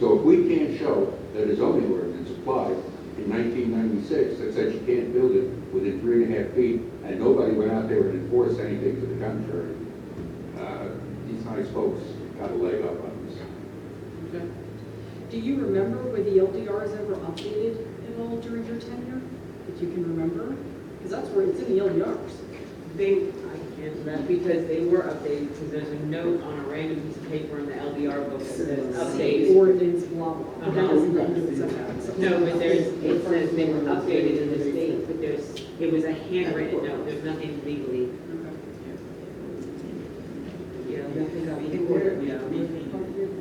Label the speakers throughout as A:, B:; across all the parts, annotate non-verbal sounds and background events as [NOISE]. A: So if we can't show that a zoning ordinance applied in nineteen ninety-six that said you can't build it within three and a half feet, and nobody went out there and enforced anything to the contrary, uh, these nice folks got a leg up on us.
B: Okay. Do you remember were the LDRs ever updated at all during your tenure? If you can remember? Because that's where it's in the LDRs.
C: They, I can't remember, because they were updated, because there's a note on a random piece of paper in the LDR book that says
B: City
C: updated.
B: Ordinance, blah, blah. But that doesn't go into the setbacks.
C: Uh-huh. No, but there's, it says they were updated in the state, but there's, it was a handwritten note, there's nothing legally. Yeah, nothing got in order, yeah.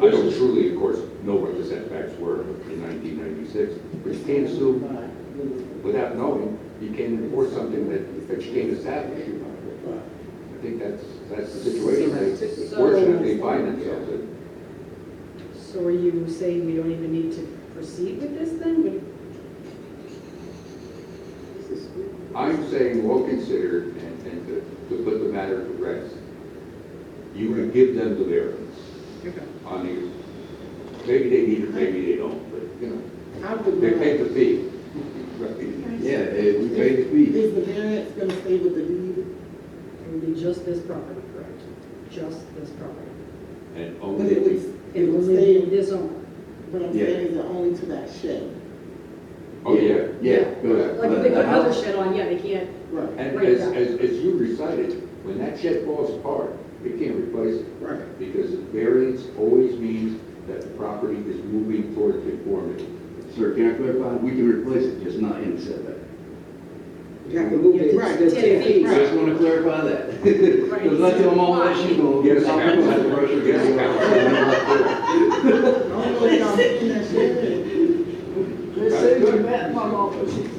A: I know truly, of course, know what the setbacks were in nineteen ninety-six, but you can't sue without knowing, you can't enforce something that, that you can't establish. I think that's, that's the situation they fortunately find themselves in.
B: So are you saying we don't even need to proceed with this then? We-
A: I'm saying, well considered, and, and to, to put the matter to rest, you would give them the variance on you. Maybe they need it, maybe they don't, but, you know,
D: I would
A: they paid
D: not.
A: the fee. Right.
E: Yeah, eh, we paid the fee.
D: Is the variance gonna stay with the deed?
B: It would be just this property, correct? Just this property.
A: And
D: But
A: only
D: it
A: if we
D: would,
B: It
D: it
B: will
D: would
B: stay in
D: stay,
B: this owner.
D: but I'm
E: Yeah.
D: saying is it only to that shed?
A: oh, yeah.
E: Yeah, good.
B: Like if they put another shed on, yeah, they can't.
D: Right,
A: And
B: Right,
A: as,
B: yeah.
A: as, as you recited, when that shed falls apart, we can't replace it,
D: right.
A: because variance always means that the property is moving toward conformity.
E: Sir, can I clarify? We can replace it, just not in the setback.
D: You have to move it. Right, just ten feet.
E: I Just want to clarify that. Because I tell my wife, she gonna.
A: Yes,
E: I'm gonna have to brush her
A: yes,
E: down.
D: I don't know if y'all seen that [LAUGHS] shed.
A: Let's say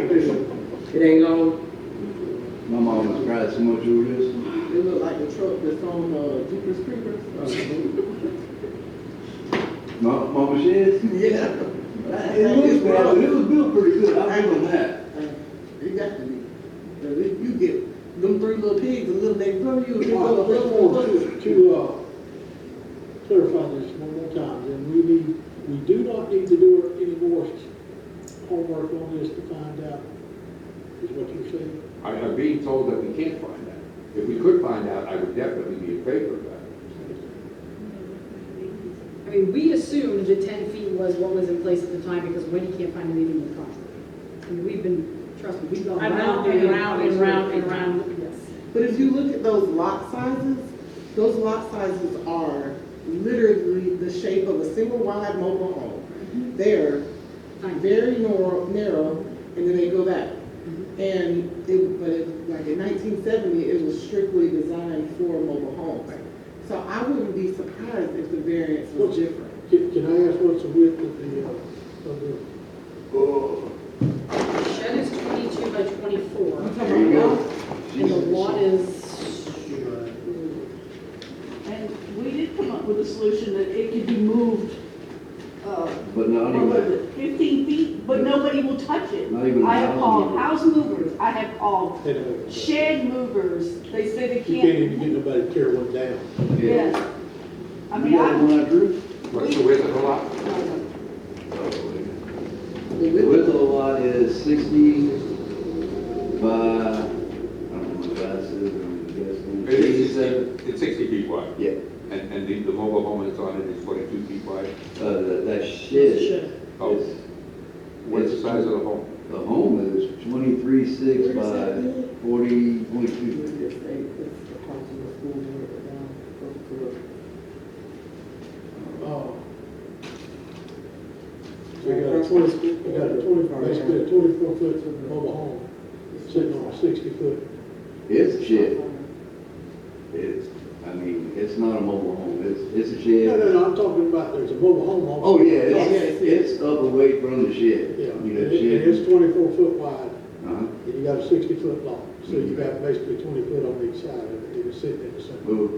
A: it's a
F: It ain't long.
E: My mom was crying so much over this.
D: It looked like the truck that's on, uh, Jeepers [LAUGHS] Creepers. Uh,
E: My, mama shed? Yeah. It looks bad, but it was built pretty good. I give them that.
D: Uh, It got to be. But if you get them three little pigs, a little next door, you.
G: Well, I just want to, uh, clarify this one more time, and we need, we do not need to do any more homework on this to find out, is what you're saying?
A: I, I'm being told that we can't find out. If we could find out, I would definitely be in favor of that.
B: I mean, we assumed that ten feet was what was in place at the time because Wendy can't find anything in the contract. I mean, we've been, trust me, we've gone
C: I know,
B: round
C: and
B: and
C: round
B: round and
C: and
B: round and
C: round.
B: round, yes.
D: But if you look at those lot sizes, those lot sizes are literally the shape of a single wide mobile home. They're
B: Tiny.
D: very narrow, narrow, and then they go back. And it, but it, like in nineteen seventy, it was strictly designed for mobile homes. So I wouldn't be surprised if the variance was different.
G: Can, can I ask what's the width of the, uh, of the,
B: The shed is twenty-two by twenty-four.
E: There you go.
B: And the lot is,
H: And we did come up with a solution that it could be moved, uh,
E: But not
H: what was
E: anyway.
H: it, fifteen feet, but nobody will touch it.
E: Not even a
H: I have
E: house
H: called
E: mover.
H: house movers, I have called
G: they don't-
H: shed movers, they say they
G: You can't
H: can't.
G: even get nobody to tear one down.
H: Yes. I mean,
E: You got
H: I,
E: one I drew?
A: What's the width of the lot?
D: The
E: The
D: width-
E: width of the lot is sixty by, I don't know what size it is, I'm guessing.
A: It is
E: 87.
A: 60 It's sixty feet wide,
E: Yeah,
A: and, and the, the mobile home that's on it is forty-two feet wide.
E: uh, that, that shed
A: Oh.
E: is,
A: What's the size of the home?
E: the home is twenty-three six
D: Where is that
E: by
D: at?
E: forty point
D: You
E: two.
D: would just say it's across from the school, right down, close to it.
G: Oh. We got a twenty, we got a twenty, basically a twenty-four foot mobile home, sitting on a sixty foot.
E: It's a shed. It's, I mean, it's not a mobile home, it's, it's a shed.
G: No, no, no, I'm talking about, there's a mobile home on.
E: Oh, yeah,
D: Yes.
E: it's, it's up away from the shed.
G: Yeah, and
E: You know,
G: it and it's
E: shed.
G: twenty-four foot wide,
E: Uh-huh.
G: and you got a sixty-foot long, so you got basically twenty foot on each side of it, it's sitting in the center.
E: Well,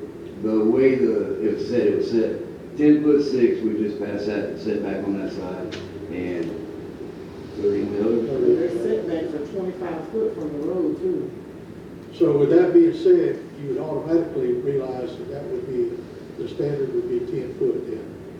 E: the way the, it was set, it was set ten foot six, we just passed that setback on that side, and thirty on the
D: Their
E: other.
D: setbacks are twenty-five foot from the road too.
G: So with that being said, you would automatically realize that that would be, the standard would be ten foot then.